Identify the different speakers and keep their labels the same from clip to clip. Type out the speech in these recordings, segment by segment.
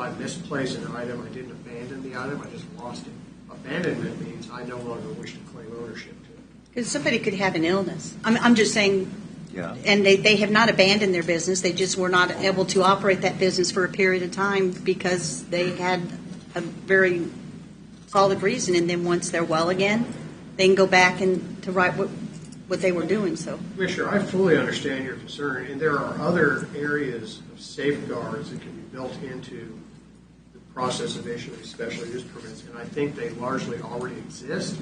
Speaker 1: I misplaced an item, I didn't abandon the item, I just lost it. Abandonment means I no longer wish to claim ownership to it.
Speaker 2: Because somebody could have an illness. I'm, I'm just saying,
Speaker 3: Yeah.
Speaker 2: and they, they have not abandoned their business, they just were not able to operate that business for a period of time because they had a very solid reason, and then once they're well again, they can go back and to write what, what they were doing, so.
Speaker 1: Commissioner, I fully understand your concern, and there are other areas of safeguards that can be built into the process of issuing special use permits, and I think they largely already exist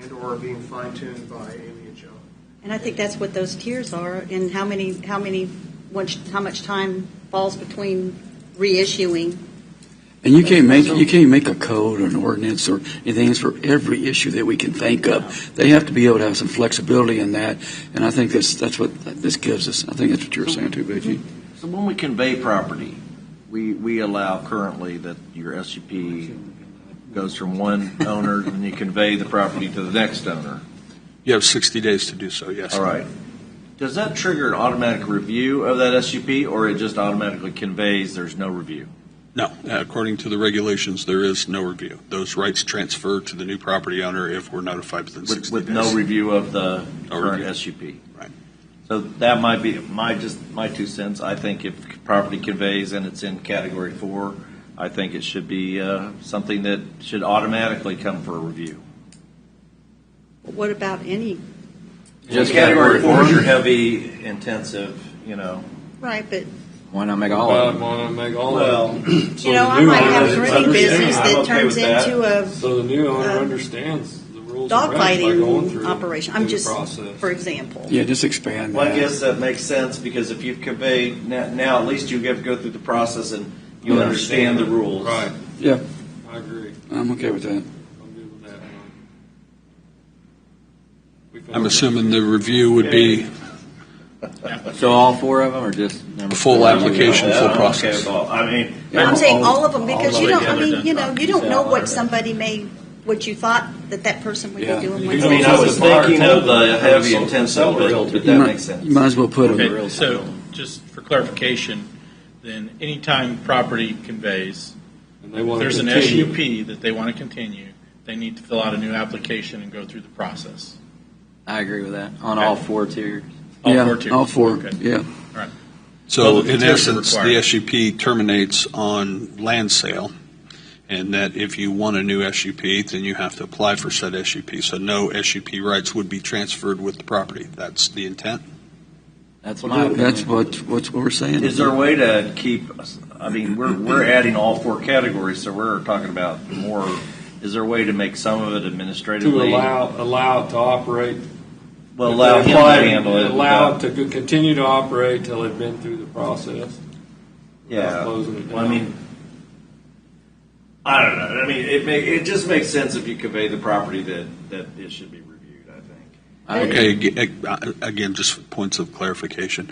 Speaker 1: and/or are being fine-tuned by Amy and John.
Speaker 2: And I think that's what those tiers are, and how many, how many, once- how much time falls between reissuing.
Speaker 4: And you can't make, you can't make a code or an ordinance or anything, it's for every issue that we can think of. They have to be able to have some flexibility in that, and I think that's, that's what this gives us. I think that's what you were saying too, Vicki.
Speaker 3: So when we convey property, we, we allow currently that your SUP goes from one owner and you convey the property to the next owner.
Speaker 5: You have 60 days to do so, yes.
Speaker 3: All right. Does that trigger an automatic review of that SUP or it just automatically conveys there's no review?
Speaker 5: No, uh, according to the regulations, there is no review. Those rights transfer to the new property owner if we're notified within
Speaker 3: With,
Speaker 5: 60 days.
Speaker 3: with no review of the
Speaker 5: No
Speaker 3: current
Speaker 5: review.
Speaker 3: SUP?
Speaker 5: Right.
Speaker 3: So that might be my, just my two cents. I think if property conveys and it's in category four, I think it should be, uh, something that should automatically come for a review.
Speaker 2: What about any?
Speaker 6: Just
Speaker 3: Category
Speaker 6: category
Speaker 3: four is your
Speaker 6: one.
Speaker 3: heavy, intensive, you know.
Speaker 2: Right, but
Speaker 6: Why not make all of them?
Speaker 7: want to make all
Speaker 3: Well,
Speaker 7: of
Speaker 2: You know, I might have a drinking business
Speaker 3: I'm
Speaker 2: that
Speaker 3: okay
Speaker 2: turns
Speaker 3: with that.
Speaker 2: into
Speaker 7: it.
Speaker 2: a
Speaker 7: So the new owner
Speaker 2: Uh,
Speaker 7: understands the rules and regs by going
Speaker 2: dogfighting
Speaker 7: through
Speaker 2: operation.
Speaker 7: through
Speaker 2: I'm
Speaker 7: the
Speaker 2: just,
Speaker 7: process.
Speaker 2: for example.
Speaker 4: Yeah, just expand
Speaker 3: Well, I
Speaker 4: that.
Speaker 3: guess that makes sense because if you've conveyed now, now at least you have to go through the process and you
Speaker 4: Yeah.
Speaker 3: understand the rules.
Speaker 7: Right.
Speaker 4: Yeah,
Speaker 7: I agree.
Speaker 4: I'm okay with that.
Speaker 7: I'm good with that one. We found-
Speaker 5: I'm assuming the review would be
Speaker 6: So all four of them, or just number?
Speaker 5: A full
Speaker 6: four?
Speaker 5: application.
Speaker 3: Yeah,
Speaker 5: full
Speaker 3: I'm okay
Speaker 5: process.
Speaker 3: with all- I mean,
Speaker 2: I'm saying all of them
Speaker 3: all
Speaker 2: because
Speaker 3: the
Speaker 2: you
Speaker 3: way
Speaker 2: don't, I
Speaker 3: together
Speaker 2: mean,
Speaker 3: doesn't
Speaker 2: you know, you
Speaker 3: knock
Speaker 2: don't know
Speaker 3: out.
Speaker 2: what somebody may, what you thought that that person would be
Speaker 4: Yeah.
Speaker 2: doing.
Speaker 7: You
Speaker 2: when
Speaker 7: do
Speaker 3: I
Speaker 2: they-
Speaker 3: mean, I was thinking of the heavy
Speaker 7: Sell-
Speaker 3: intensive,
Speaker 7: sell real.
Speaker 3: but, but
Speaker 4: You
Speaker 3: that
Speaker 4: might-
Speaker 3: makes sense.
Speaker 4: You might as well put
Speaker 6: Okay.
Speaker 4: it,
Speaker 6: Real
Speaker 8: Okay, so
Speaker 6: title.
Speaker 8: just for clarification, then anytime property conveys,
Speaker 7: And they
Speaker 8: if
Speaker 7: want to
Speaker 8: there's an
Speaker 7: continue.
Speaker 8: SUP that they want to continue, they need to fill out a new application and go through the process.
Speaker 6: I agree with that, on all four tiers.
Speaker 8: All
Speaker 4: yeah,
Speaker 8: four tiers.
Speaker 4: all four,
Speaker 8: Okay.
Speaker 4: yeah.
Speaker 5: So
Speaker 8: Well, the
Speaker 5: in
Speaker 8: tiers are
Speaker 5: essence, the
Speaker 8: required.
Speaker 5: SUP terminates on land sale, and that if you want a new SUP, then you have to apply for said SUP. So no SUP rights would be transferred with the property. That's the intent?
Speaker 6: That's my opinion.
Speaker 4: That's what, what's what we're saying.
Speaker 3: Is there a way to keep, I mean, we're, we're adding all four categories, so we're talking about more. Is there a way to make some of it
Speaker 7: To
Speaker 3: administratively?
Speaker 7: allow, allow it to operate.
Speaker 3: Well, allow him to
Speaker 7: Apply-
Speaker 3: handle it.
Speaker 7: Allow it
Speaker 3: without-
Speaker 7: to co- continue to operate till they've been through the process.
Speaker 3: Yeah.
Speaker 7: Closing it down.
Speaker 3: Well, I mean, I don't know. I mean, it may, it just makes sense if you convey the property that, that it should be reviewed, I think.
Speaker 6: I agree.
Speaker 5: Okay, ag- ag- again, just for points of clarification,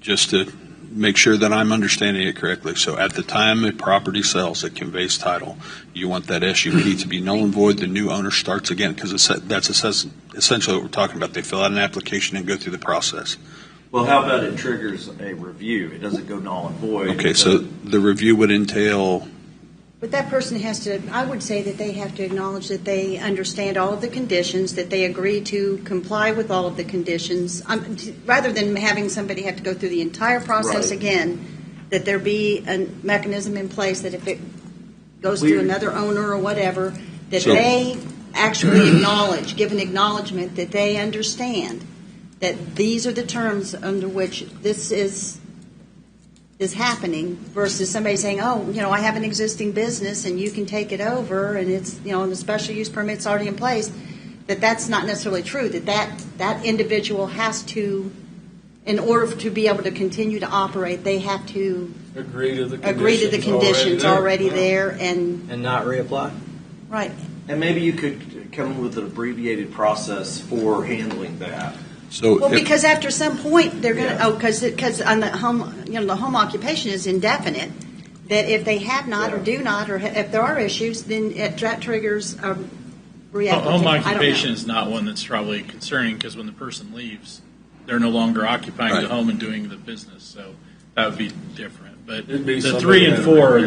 Speaker 5: just to make sure that I'm understanding it correctly. So at the time a property sells, it conveys title. You want that SUP to be null and void, the new owner starts again, because that's assess- essentially what we're talking about. They fill out an application and go through the process.
Speaker 3: Well, how about it triggers a review? It doesn't go null and void.
Speaker 5: Okay, so the review would entail,
Speaker 2: But that person has to, I would say that they have to acknowledge that they understand all of the conditions, that they agree to comply with all of the conditions, um, t- rather than having somebody have to go through the entire process
Speaker 3: Right.
Speaker 2: again, that there be a mechanism in place that if it goes
Speaker 3: Weird.
Speaker 2: to another owner or whatever, that
Speaker 5: So-
Speaker 2: they actually acknowledge, give an acknowledgement that they understand that these are the terms under which this is is happening versus somebody saying, oh, you know, I have an existing business and you can take it over and it's, you know, and the special use permit's already in place, that that's not necessarily true, that that, that individual has to, in order to be able to continue to operate, they have to
Speaker 7: Agree to the conditions.
Speaker 2: agree to the conditions already
Speaker 7: Yeah.
Speaker 2: there and,
Speaker 6: And not reapply?
Speaker 2: right.
Speaker 3: And maybe you could come up with an abbreviated process for handling that.
Speaker 5: so.
Speaker 2: Well,
Speaker 5: if-
Speaker 2: because after some point, they're gonna,
Speaker 3: Yeah.
Speaker 2: oh, because, because on the home, you know, the home occupation is indefinite, that if they have not or do not, or ha- if there are issues, then it that triggers a reapplicant.
Speaker 8: Home
Speaker 2: I don't know.
Speaker 8: occupation is not one that's probably concerning, because when the person leaves, they're no longer occupying
Speaker 5: Right.
Speaker 8: the home and doing the business, so that would be different. But
Speaker 7: It'd be
Speaker 8: the
Speaker 7: somebody
Speaker 8: three and
Speaker 7: that-
Speaker 8: four are